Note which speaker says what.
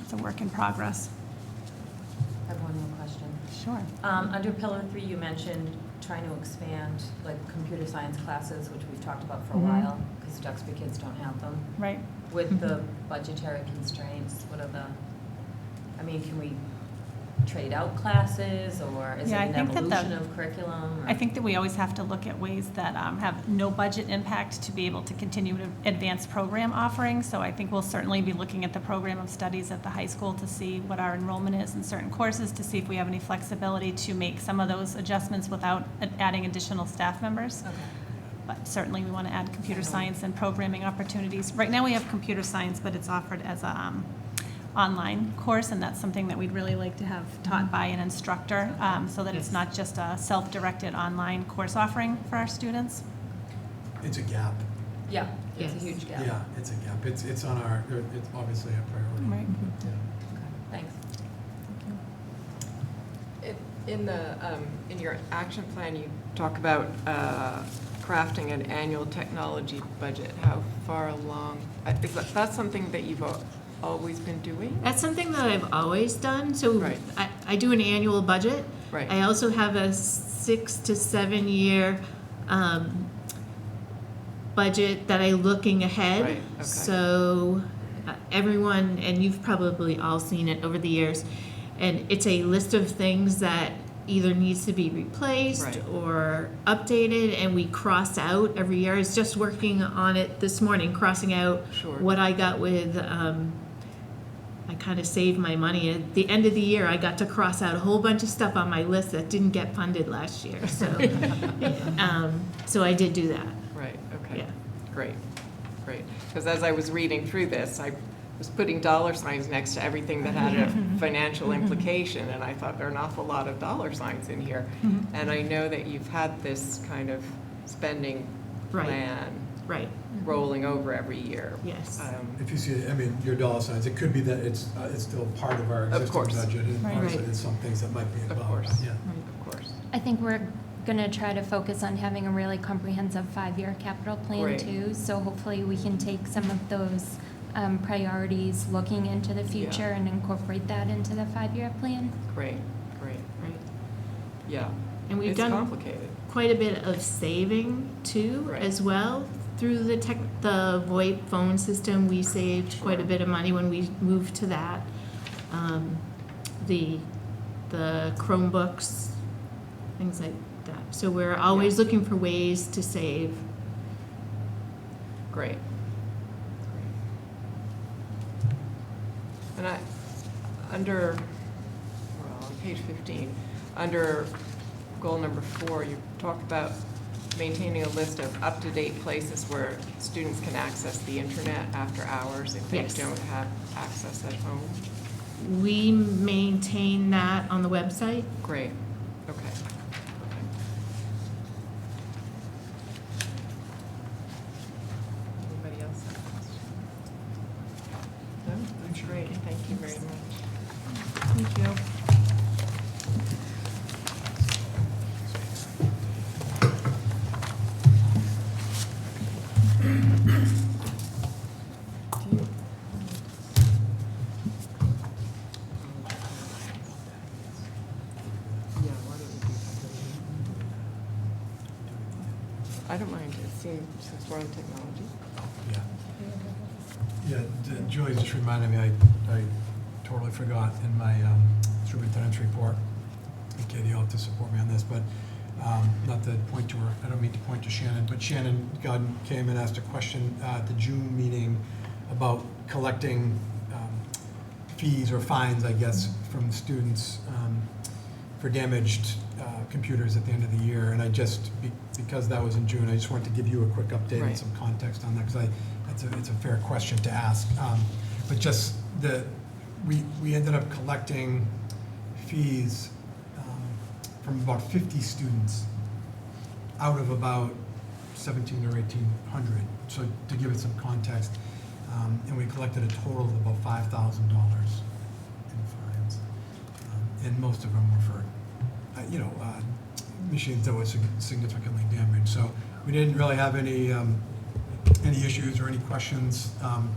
Speaker 1: It's a work in progress.
Speaker 2: I have one more question.
Speaker 1: Sure.
Speaker 2: Um, Under pillar three, you mentioned trying to expand, like, computer science classes, which we've talked about for a
Speaker 1: Mhm.
Speaker 2: while, because Duxbury kids don't have them.
Speaker 1: Right.
Speaker 2: With the
Speaker 1: Mm-hmm.
Speaker 2: budgetary constraints, what are the, I mean, can we trade out classes, or is it
Speaker 1: Yeah, I
Speaker 2: an
Speaker 1: think that the-
Speaker 2: evolution of curriculum? or-
Speaker 1: I think that we always have to look at ways that um, have no budget impact to be able to continue to advance program offerings. So I think we'll certainly be looking at the program of studies at the high school to see what our enrollment is in certain courses, to see if we have any flexibility to make some of those adjustments without adding additional staff members.
Speaker 2: Okay.
Speaker 1: But certainly, we want to add computer science and programming opportunities. Right now, we have computer science, but it's offered as a um, online course, and that's something that we'd really like to have taught by an instructor, um, so that it's not just a self-directed online course offering for our students.
Speaker 3: It's a gap.
Speaker 2: Yeah, it's a
Speaker 4: Yes.
Speaker 2: huge gap.
Speaker 3: Yeah, it's a gap. It's, it's on our, it's obviously a priority.
Speaker 1: Right.
Speaker 3: Yeah.
Speaker 2: Okay, Thanks.
Speaker 4: It- In the, um, in your action plan, you talk about uh, crafting an annual technology budget. How far along, uh, is that, that's something that you've al- always been doing?
Speaker 5: That's something that I've always done, so
Speaker 4: Right.
Speaker 5: I, I do an annual budget.
Speaker 4: Right.
Speaker 5: I also have a six to seven year, um, budget that I looking ahead.
Speaker 4: Right, okay.
Speaker 5: So, uh, everyone, and you've probably all seen it over the years, and it's a list of things that either needs to be replaced
Speaker 4: Right.
Speaker 5: or updated, and we cross out every year. I was just working on it this morning, crossing out
Speaker 4: Sure.
Speaker 5: what I got with, um, I kind of saved my money. At the end of the year, I got to cross out a whole bunch of stuff on my list that didn't get funded last year. So, um, so I did do that.
Speaker 4: Right, okay.
Speaker 5: Yeah.
Speaker 4: Great, great. Because as I was reading through this, I was putting dollar signs next to everything that had
Speaker 5: Mm-hmm.
Speaker 4: a financial implication, and I thought there are an awful lot of dollar signs in here.
Speaker 5: Mm-hmm.
Speaker 4: And I know that you've had this kind of spending
Speaker 5: Right. Mm-hmm.
Speaker 4: plan
Speaker 5: Right.
Speaker 4: rolling over every year.
Speaker 5: Yes.
Speaker 4: Um,
Speaker 3: If you see, I mean, your dollar signs, it could be that it's, uh, it's still part of our
Speaker 4: Of
Speaker 3: existing
Speaker 4: course.
Speaker 3: budget. And
Speaker 1: Right.
Speaker 3: obviously,
Speaker 5: Right.
Speaker 3: there's some things that might be
Speaker 4: Of
Speaker 3: involved,
Speaker 4: course.
Speaker 3: yeah.
Speaker 4: Of course.
Speaker 6: I think we're going to try to focus on having a really comprehensive five-year capital plan
Speaker 4: Great.
Speaker 6: too. So hopefully we can take some of those um, priorities, looking into the future and incorporate that into the five-year plan.
Speaker 4: Great, great,
Speaker 5: Right.
Speaker 4: yeah.
Speaker 5: And we've
Speaker 4: It's
Speaker 5: done-
Speaker 4: complicated.
Speaker 5: Quite a bit of saving too,
Speaker 4: Right.
Speaker 5: as well. Through the tech, the VoIP phone system, we saved quite a
Speaker 4: Sure.
Speaker 5: bit of money when we moved to that. Um, the the Chromebooks, things like that. So we're always looking for ways to save.
Speaker 4: Great. And I, under, well, on page 15, under goal number four, you talk about maintaining a list of up-to-date places where students can access the internet after hours if they
Speaker 5: Yes.
Speaker 4: don't have access at home.
Speaker 5: We maintain that on the website.
Speaker 4: Great, okay. Anybody else have questions? No, that's great, thank you very much.
Speaker 5: Thank you.
Speaker 4: Yeah, why don't we do that? I don't mind, it seems, since we're on technology.
Speaker 3: Yeah. Yeah, d- Julie just reminded me, I, I totally forgot in my um, superintendent's report, and Katie, you'll have to support me on this, but um, not to point to her, I don't mean to point to Shannon, but Shannon Godden came and asked a question uh, at the June meeting about collecting um, fees or fines, I guess, from students um, for damaged uh, computers at the end of the year. And I just, be- because that was in June, I just wanted to give you a quick update and
Speaker 4: Right.
Speaker 3: some context on that, because I, that's a, it's a fair question to ask. Um, But just the, we, we ended up collecting fees um, from about 50 students out of about 17 or 1,800. So to give it some context, um, and we collected a total of about $5,000 in fines. Um, And most of them were for, uh, you know, uh, machines that were sig- significantly damaged. So we didn't really have any, um, any issues or any questions um,